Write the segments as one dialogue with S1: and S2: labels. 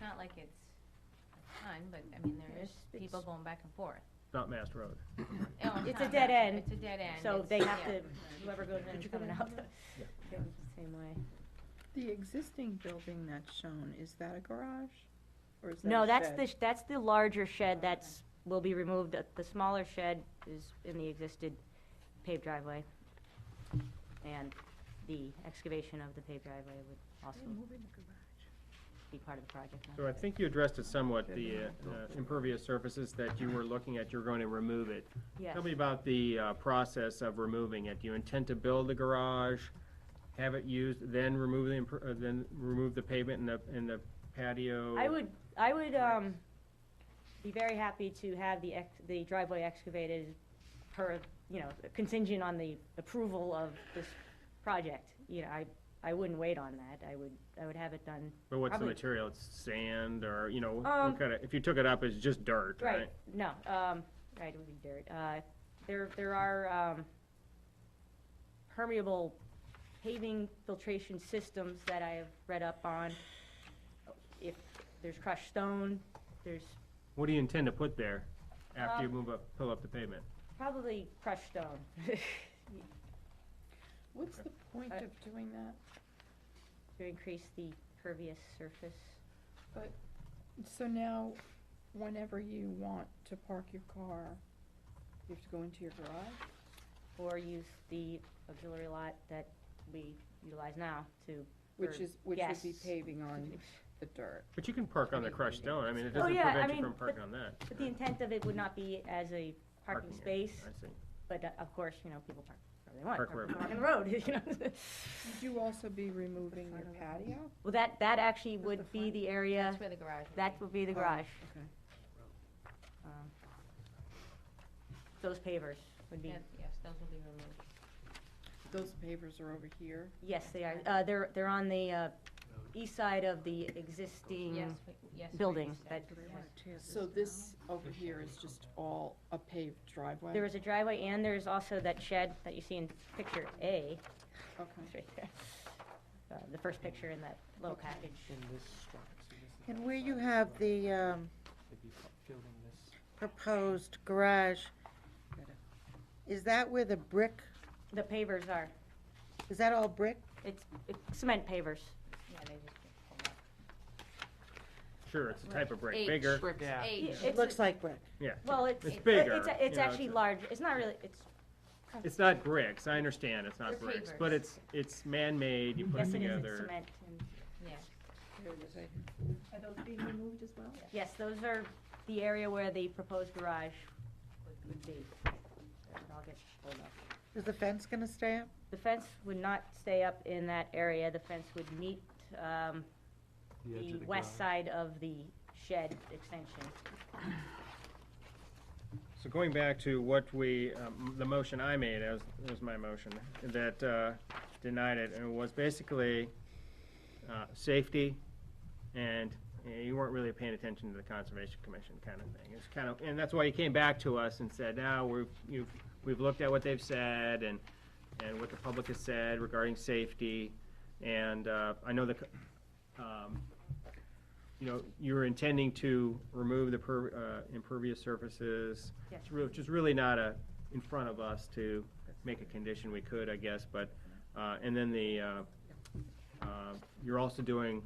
S1: not like it's a ton, but I mean, there is people
S2: It's-
S1: going back and forth.
S3: not Mass Road.
S1: No, I'm
S2: It's
S1: talking
S2: a dead
S1: about-
S2: end,
S1: It's a dead end.
S2: So
S1: it's-
S2: they have
S1: yeah.
S2: to, whoever goes in is coming out.
S3: Yeah.
S2: They look the Same way.
S4: The existing building that's shown, is that a garage? Or is that
S2: No,
S4: a
S2: that's
S4: shed?
S2: the, sh- that's the larger shed that's, will be removed. The- The smaller shed is in the existed paved driveway. And the excavation of the paved driveway would also
S4: Mm-hmm.
S2: be part of the project.
S3: So I think you addressed it somewhat, the uh, uh, impervious surfaces that you were looking at, you're going to remove it.
S2: Yes.
S3: Tell me about the uh, process of removing it. Do you intend to build the garage, have it used, then remove the, imper- uh, then remove the pavement and the, and the patio?
S2: I would, I would, um, be very happy to have the ex, the driveway excavated per, you know, contingent on the approval of this project. You know, I, I wouldn't wait on that. I would, I would have it done
S3: But what's the
S2: probably-
S3: material? It's sand or, you know,
S2: Um,
S3: what kind of, if you took it up, it's just dirt, right?
S2: Right, no, um, right, it would be dirt. Uh, there, there are, um, permeable paving filtration systems that I have read up on. If there's crushed stone, there's
S3: What do you intend to put there after you
S2: Um,
S3: move up, pull up the pavement?
S2: probably crushed stone.
S4: What's the point
S2: Uh,
S4: of doing that?
S2: To increase the pervious surface.
S4: So now, whenever you want to park your car, you have to go into your garage?
S2: Or use the auxiliary lot that we utilize now to.
S4: Which
S2: For
S4: is, which would be
S2: guests.
S4: paving on the dirt.
S3: But you can park on the crushed stone. I mean, it
S2: Oh,
S3: doesn't
S2: yeah, I
S3: prevent you
S2: mean,
S3: from
S2: but-
S3: parking on that.
S2: But the intent of it would not be as a parking
S3: area.
S2: space,
S3: I see.
S2: but uh, of course, you know, people park wherever they want.
S3: Park wherever.
S2: On the road, you know.
S4: Would you also be removing your patio?
S2: Well, that, that actually
S4: That's the
S2: would be
S4: front.
S2: the area,
S1: That's where the garage would
S2: that
S1: be.
S2: would be the
S4: Oh.
S2: garage.
S4: Okay.
S2: um, Those pavers would be,
S1: Yes, yes, those will be removed.
S4: Those pavers are over here.
S2: yes, they are, uh, they're, they're on the, uh, east side of the existing,
S1: Yes, we- yes. we
S2: building
S1: understand.
S2: that-
S1: Yes.
S4: So this over here is just all a paved driveway?
S2: there is a driveway and there's also that shed that you see in picture A,
S4: Okay.
S2: it's right there. Uh, the first picture in that little package.
S5: And where you have the um, proposed garage, is that where the brick,
S2: The pavers are,
S5: is that all brick?
S2: it's it's cement pavers,
S1: Yeah, they just get pulled up.
S3: Sure, it's a type of break,
S1: H.
S3: bigger.
S1: H.
S2: It's-
S5: It looks like brick.
S3: Yeah.
S2: well, it's,
S3: It's
S2: it-
S3: bigger,
S2: it's, a-
S3: you
S2: it's
S3: know,
S2: actually
S3: it's a-
S2: large, it's not really, it's,
S3: It's not bricks, I understand, it's
S1: They're
S3: not bricks,
S1: pavers.
S3: but it's, it's man-made, you put
S2: yes,
S3: it
S2: it is, it's
S3: together.
S2: cement. and-
S1: Yes.
S4: Here it is, right
S6: Are those being removed as well?
S2: Yes, those are the area where the proposed garage would- would be. I'll get pulled up.
S5: Is the fence gonna stay up?
S2: The fence would not stay up in that area, the fence would meet, um, the west side of the shed extension.
S3: So going back to what we, um, the motion I made, as, was my motion, that uh, denied it, and it was basically uh, safety, and you know, you weren't really paying attention to the Conservation Commission kind of thing. It's kind of, and that's why you came back to us and said, now, we've, you've, we've looked at what they've said, and, and what the public has said regarding safety, and uh, I know the, co- um, you know, you're intending to remove the per- uh, impervious surfaces.
S2: Yes.
S3: It's real- Which is really not a, in front of us to make a condition, we could, I guess, but, uh, and then the, uh, uh, you're also doing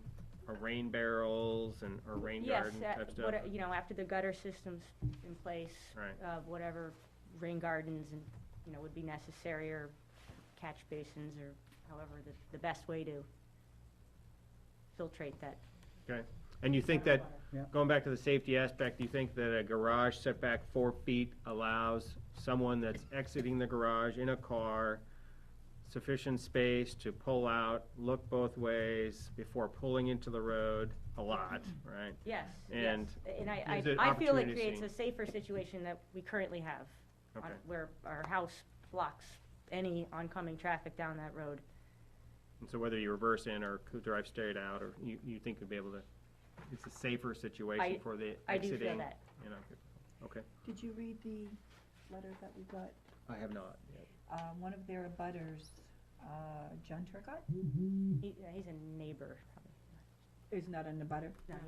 S3: uh, rain barrels and, or rain
S2: Yes,
S3: garden
S2: uh,
S3: type stuff.
S2: what- you know, after the gutter system's in place.
S3: Right.
S2: Uh, whatever rain gardens and, you know, would be necessary or catch basins or however the, the best way to filtrate that.
S3: And you think that,
S5: Yeah.
S3: going back to the safety aspect, you think that a garage setback four feet allows someone that's exiting the garage in a car sufficient space to pull out, look both ways before pulling into the road a lot,
S2: Mm-hmm.
S3: right?
S2: Yes, yes.
S3: And
S2: And I,
S3: is it
S2: I, I feel it
S3: opportunity
S2: creates a
S3: seeing-
S2: safer situation that we currently have. on-
S3: Okay,
S2: Where our house blocks any oncoming traffic down that road.
S3: and so whether you reverse in or could drive straight out, or you, you think you'd be able to, it's a safer situation
S2: I-
S3: for the
S2: I do
S3: exiting?
S2: feel that.
S3: you know, Okay,
S6: Did you read the letter that we got?
S3: I have not yet.
S6: Uh, one of their abutters, uh, John Turcott,
S2: He, yeah, he's a neighbor, probably.
S6: is not an abutter.
S2: No,